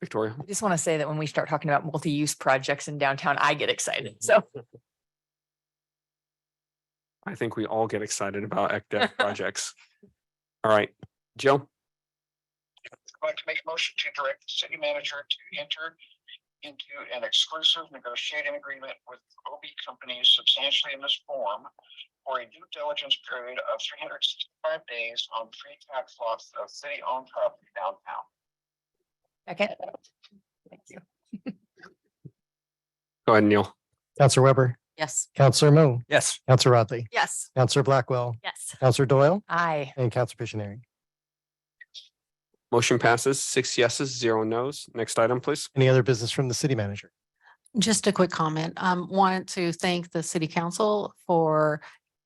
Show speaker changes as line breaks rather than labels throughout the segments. Victoria.
I just want to say that when we start talking about multi-use projects in downtown, I get excited. So
I think we all get excited about ECDF projects. All right, Joe,
I'd like to make a motion to direct the city manager to enter into an exclusive negotiating agreement with OB companies substantially in this form for a due diligence period of three hundred sixty-five days on three tax lots of city-owned property downtown.
second, thank you.
go ahead, Neil.
Counselor Weber,
Yes.
Counselor Moon,
Yes.
Counselor Rattray,
Yes.
Counselor Blackwell,
Yes.
Counselor Doyle,
I,
and Counselor Pictionary.
Motion passes six yeses, zero nos. Next item, please.
Any other business from the city manager?
Just a quick comment. Um, wanted to thank the city council for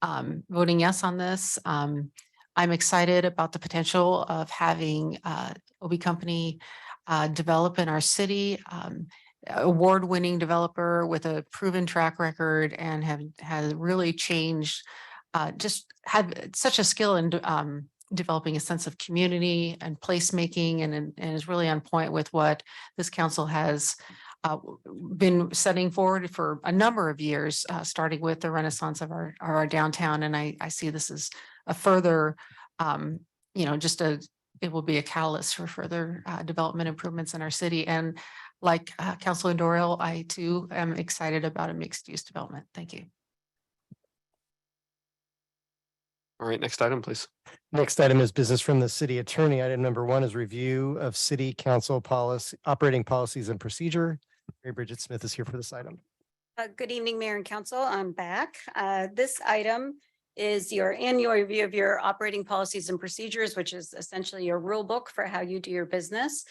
um, voting yes on this. Um, I'm excited about the potential of having uh, OB Company uh, develop in our city. um, Award-winning developer with a proven track record and have, has really changed, uh, just had such a skill in um, developing a sense of community and placemaking and, and is really on point with what this council has uh, w- w- been setting forward for a number of years, uh, starting with the renaissance of our, of our downtown. And I, I see this as a further, um, you know, just a, it will be a catalyst for further, uh, development improvements in our city. And like, uh, Councilor Doyle, I too am excited about a mixed use development. Thank you.
All right, next item, please.
Next item is business from the city attorney. Item number one is review of city council policy, operating policies and procedure. Mary Bridget Smith is here for this item.
Uh, good evening, Mayor and Council. I'm back. Uh, this item is your annual review of your operating policies and procedures, which is essentially your rule book for how you do your business.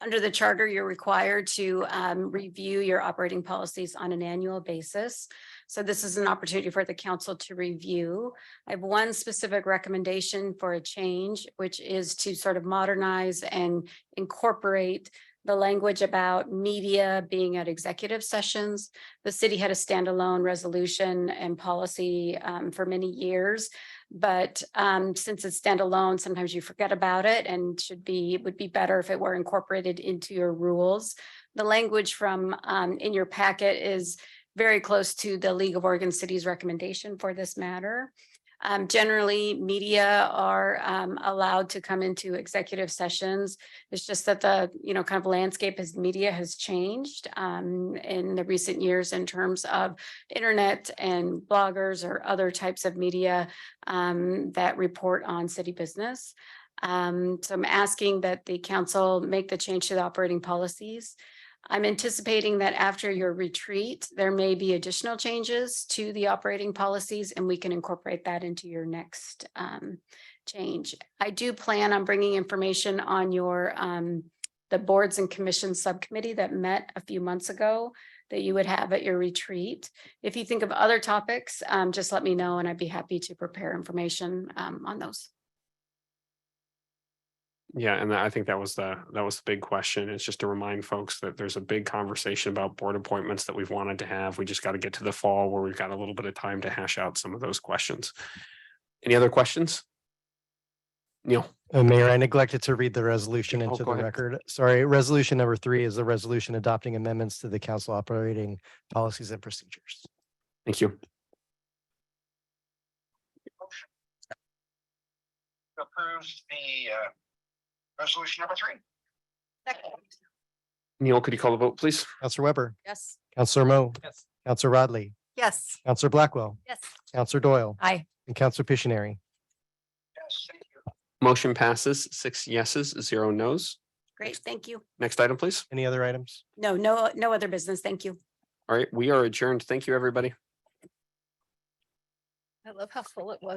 Under the charter, you're required to, um, review your operating policies on an annual basis. So this is an opportunity for the council to review. I have one specific recommendation for a change, which is to sort of modernize and incorporate the language about media being at executive sessions the city had a standalone resolution and policy um, for many years. But um, since it's standalone, sometimes you forget about it and should be, it would be better if it were incorporated into your rules. The language from um, in your packet is very close to the League of Oregon Cities recommendation for this matter. Um, generally, media are um, allowed to come into executive sessions it's just that the, you know, kind of landscape as media has changed um in the recent years in terms of internet and bloggers or other types of media um that report on city business. Um, so I'm asking that the council make the change to the operating policies. I'm anticipating that after your retreat, there may be additional changes to the operating policies and we can incorporate that into your next um change. I do plan on bringing information on your, um, the boards and commissions subcommittee that met a few months ago that you would have at your retreat. If you think of other topics, um, just let me know and I'd be happy to prepare information, um, on those.
Yeah, and I think that was the, that was the big question. It's just to remind folks that there's a big conversation about board appointments that we've wanted to have. We just got to get to the fall where we've got a little bit of time to hash out some of those questions. Any other questions? Neil?
Uh, Mayor, I neglected to read the resolution
Oh,
into
go
the
ahead.
record. Sorry, resolution number three is the resolution adopting amendments to the council operating policies and procedures.
Thank you.
Approves the uh resolution number three.
Neil, could you call the vote, please?
Counselor Weber,
Yes.
Counselor Mo,
Yes.
Counselor Rodley,
yes,
Counselor Blackwell,
Yes.
Counselor Doyle,
I,
and Counselor Pictionary.
Yes, thank you.
Motion passes six yeses, zero nos.
Great, thank you.
Next item, please.
Any other items?
No, no, no other business. Thank you.
All right, we are adjourned. Thank you, everybody.
I love how full it was.